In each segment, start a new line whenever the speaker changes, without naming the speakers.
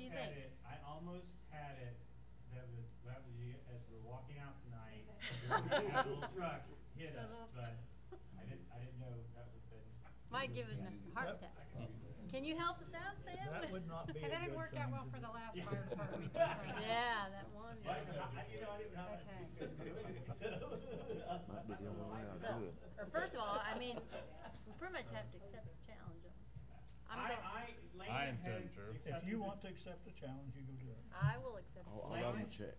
Yeah, a little truck hit us, but I didn't, I didn't know that would have been.
Might give us a heart attack.
I can do that.
Can you help us out, Sam?
That would not be a
And that had
good
worked out
thing
well
to
for the
do.
last
Yeah.
fire department meeting, right?
Yeah, that one.
I didn't know how- I- you know, I didn't know how much we could do anyway, so.
Might be the only way I'll do
So,
it.
or first of all, I mean, we pretty much have to accept the challenge. I'm gonna-
I, I, Lana
intend
has
to.
If
accepted
you
the-
want to accept the challenge, you go do it.
I will accept the
I'll,
Oh,
challenge.
I'll write him a check.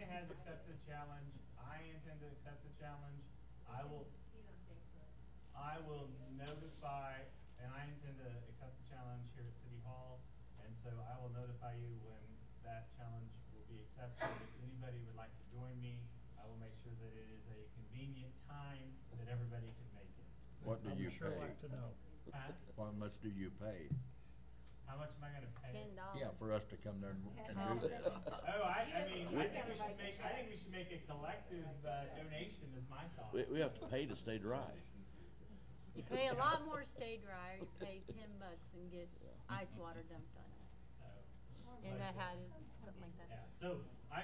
Lana has accepted the challenge. I intend to accept the challenge. I will,
See it on Facebook.
I will notify, and I intend to accept the challenge here at City Hall. And so I will notify you when that challenge will be accepted. If anybody would like to join me, I will make sure that it is a convenient time that everybody can make it.
What do
I
you
would sure
pay?
like to know.
Huh?
How much do you pay?
How much am I gonna
It's
pay?
ten dollars.
Yeah, for us to come there and and do
Oh,
that.
I, I
You-
mean,
you
I think
gotta
we should
write the
make, I
check.
think we should make a collective uh, donation is my thought.
We, we have to pay to stay dry.
You pay a lot more to stay dry, or you pay ten bucks and get ice water dumped on you.
So-
Isn't that how it is? Something like that.
Yeah, so I,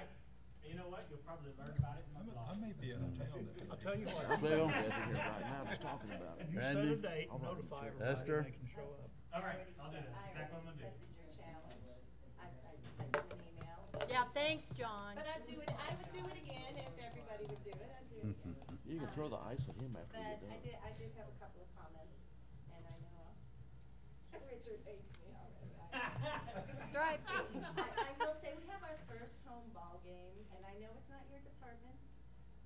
you know what, you'll probably learn about it in my
I
blog.
may be out of town that day. I'll tell you what.
Bill, over here right now, just talking about it.
You set
Randy?
a date,
I'll write him a
notify
check.
everybody,
Esther?
and they can show up.
All right, I'll do that, that's
I
exactly what I'm
already
gonna do.
accepted your challenge. I, I sent you an email.
Yeah, thanks, John.
But I'd do it, I would do it again if everybody would do it, I'd do it again.
You can throw the ice at him after
But
you get
I
done.
did, I did have a couple of comments, and I know, I'll- Richard hates me already.
Stripe.
I, I will say, we have our first home ball game, and I know it's not your department,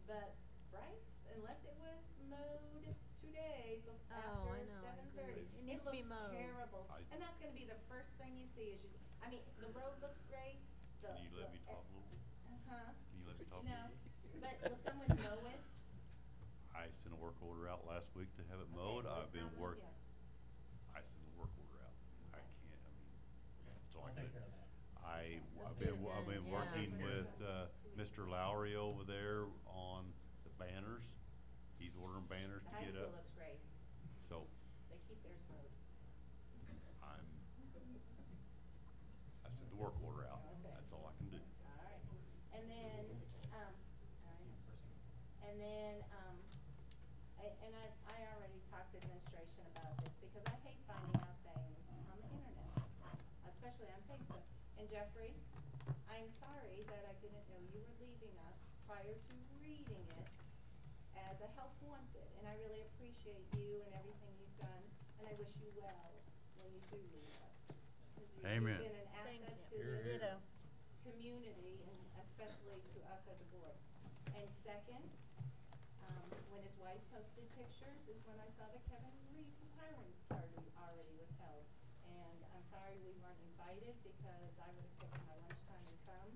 but Bryce, unless it was mowed today bef-
Oh, I
after
know, I
seven
agree.
thirty,
It needs
it
to be
looks
mowed.
terrible.
I-
And that's gonna be the first thing you see is you, I mean, the road looks great, the.
Can you let me
the-
talk a little bit?
Uh-huh,
Can you let me talk a little
no,
bit?
but will someone mow it?
I sent a work order out last week to have it
Okay,
mowed.
well,
I've
it's not
been
mowed
work,
yet.
I sent a work order out. I can't, I mean, it's all
I'll take care of
good.
that.
I,
Let's
I've
get
been,
it
I've
done,
been
yeah.
working
Yeah.
with, uh,
Two weeks.
Mr. Lowry over there on the banners. He's ordering banners
The
to
high
get
school
up,
looks great,
so
they keep theirs mowed.
I'm, I sent the work order out.
Okay.
That's all I can do.
All right, and then, um, all
See
right.
you in person.
And then, um, I, and I, I already talked to administration about this, because I hate finding out things on the internet, especially on Facebook. And Jeffrey, I'm sorry that I didn't know you were leaving us prior to reading it as a help wanted, and I really appreciate you and everything you've done, and I wish you well when you do leave us. 'Cause you-
Amen.
You've been an
Same
asset to
here.
this
Ditto.
community and especially to us as a board. And second, um, when his wife posted pictures is when I saw the Kevin Reed retiring party already was held. And I'm sorry we weren't invited because I would have taken my lunchtime and come.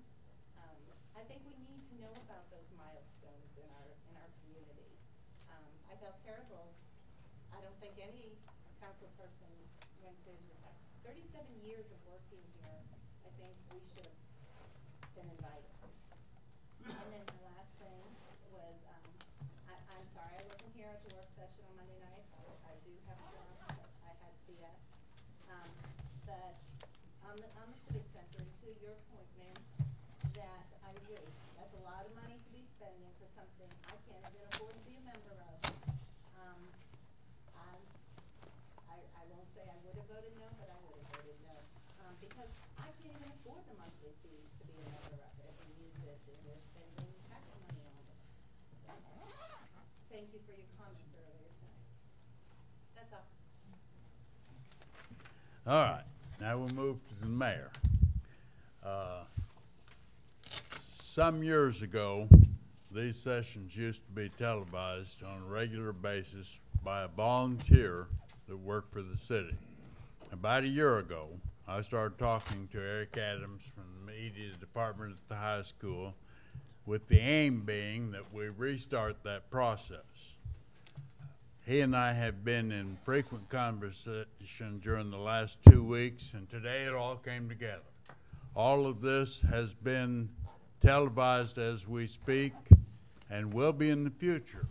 Um, I think we need to know about those milestones in our, in our community. Um, I felt terrible. I don't think any council person went to his retirement. Thirty-seven years of working here, I think we should have been invited. And then the last thing was, um, I, I'm sorry, I wasn't here at the work session on Monday night, I, I do have a job that I had to be at. Um, but on the, on the civic center, to your point, ma'am, that I agree, that's a lot of money to be spending for something I can't even afford to be a member of. Um, I'm, I, I won't say I would have voted no, but I would have voted no. Um, because I can't even afford the monthly fees to be a member of it and use it, and we're spending tax money on it. So, Thank you for your comments earlier tonight. That's all.
All right, now we'll move to the mayor. Uh, Some years ago, these sessions used to be televised on a regular basis by a volunteer that worked for the city. About a year ago, I started talking to Eric Adams from the media department at the high school with the aim being that we restart that process. He and I have been in frequent conversation during the last two weeks, and today it all came together. All of this has been televised as we speak and will be in the future.